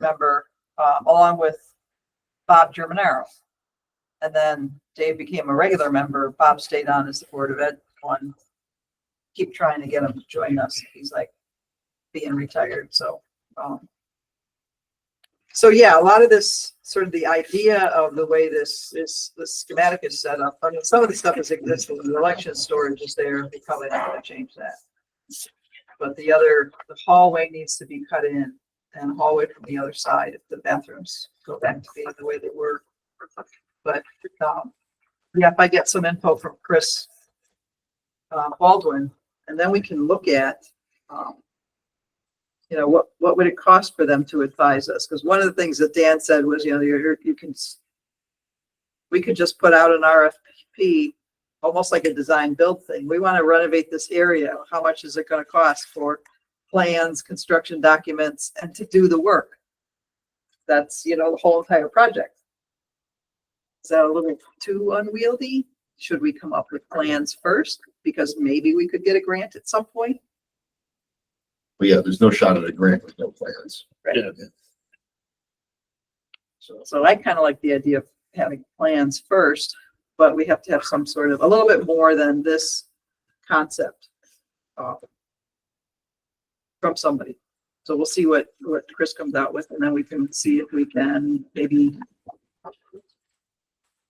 member, um, along with Bob Germanaro. And then Dave became a regular member. Bob stayed on as the Board of Ed one. Keep trying to get him to join us. He's like being retired, so, um. So yeah, a lot of this, sort of the idea of the way this is, the schematic is set up, I mean, some of the stuff is existing, the election storage is there, they probably not gonna change that. But the other, the hallway needs to be cut in and hallway from the other side if the bathrooms go back to being the way they were. But, um, yeah, if I get some info from Chris uh, Baldwin, and then we can look at, um, you know, what, what would it cost for them to advise us? Because one of the things that Dan said was, you know, you're, you can, s- we could just put out an RFP, almost like a design build thing. We want to renovate this area. How much is it going to cost for plans, construction documents, and to do the work? That's, you know, the whole entire project. Is that a little too unwieldy? Should we come up with plans first? Because maybe we could get a grant at some point? But yeah, there's no shot at a grant with no plans. Right. Yeah. So, So I kind of like the idea of having plans first, but we have to have some sort of, a little bit more than this concept uh, from somebody. So we'll see what, what Chris comes out with, and then we can see if we can maybe,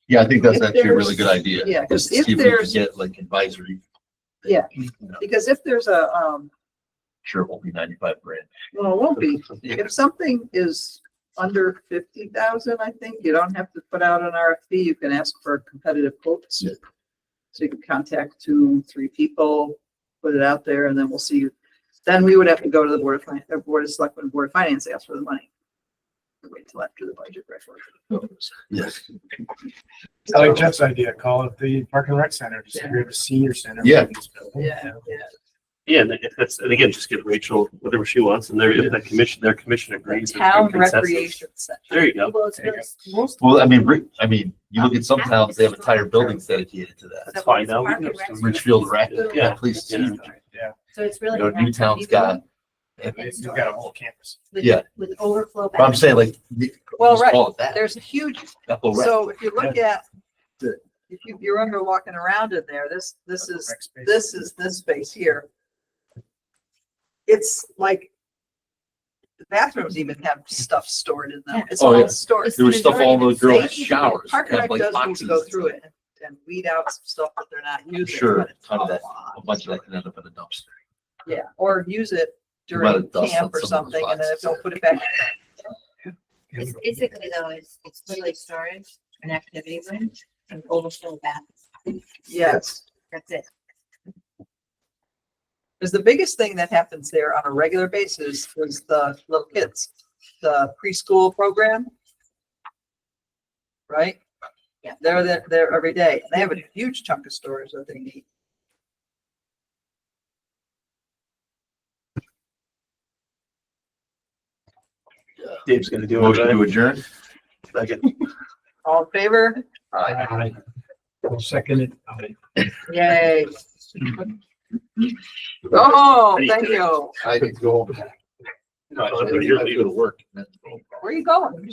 yeah, I think that's If actually a really there's- good idea. yeah, 'cause See if we could there's- Get like advisory. Yeah. You know, because if there's a, um, Sure, it won't be ninety-five grand. well, it won't be, Yeah. if something is under fifty thousand, I think, you don't have to put out an RFP, you can ask for competitive quotes. Yeah. So you can contact two, three people, put it out there, and then we'll see. Then we would have to go to the Board of Finance, the Board of Selectmen, Board of Finance, ask for the money. Wait till after the budget Oh, referendum. Yes, I like Jeff's idea, call it the parking rec center, just create a senior center. Yeah. in this building. Yeah, yeah, Yeah, and if that's, and again, just give Rachel whatever she wants and their, if that commission, their commission the agrees. there's good town consensus. recreation center. There you go. Oh, Well, it's There you most- most. well, I mean, re- I mean, you look at some towns, they have entire buildings dedicated to that. That's fine. Now we Park and can- Rec's Richfield Rec, really- yeah, please, yeah. Yeah. So it's really. You know, an activity Newtown's got- I mean, You've got a whole campus. with- yeah. With overflow. But I'm saying like. the- Well, just right, call it that. There's a huge Bethel Rec. So if you look at, Good. if you, you're under walking around in there, this, this is, Rec space. this is this space here. It's like the bathrooms even have stuff stored in them. It's Oh, yeah. all stored. There was stuff all in the girls' They- showers. Park and had, Rec like, does need to boxes go and through stuff. it and- and weed out some stuff that they're not using. Sure, but it's ton of that- lot. A bunch of that can end up in a dumpster. Yeah, or use it You might have during dusted camp or some of those something and then if boxes. they'll put it back. It's basically though, it's, it's really storage, an activity room, and overflow baths. Yes. That's it. Because the biggest thing that happens there on a regular basis is the little kids, the preschool program. Right? Yeah. They're there, there every day. They have a huge chunk of storage that they need. Dave's gonna do Motion to it. adjourn? Second. All in favor? I will second it. I- Yay. Oh, thank you. I could go. No, I don't know, you're leaving. work. Where are you going?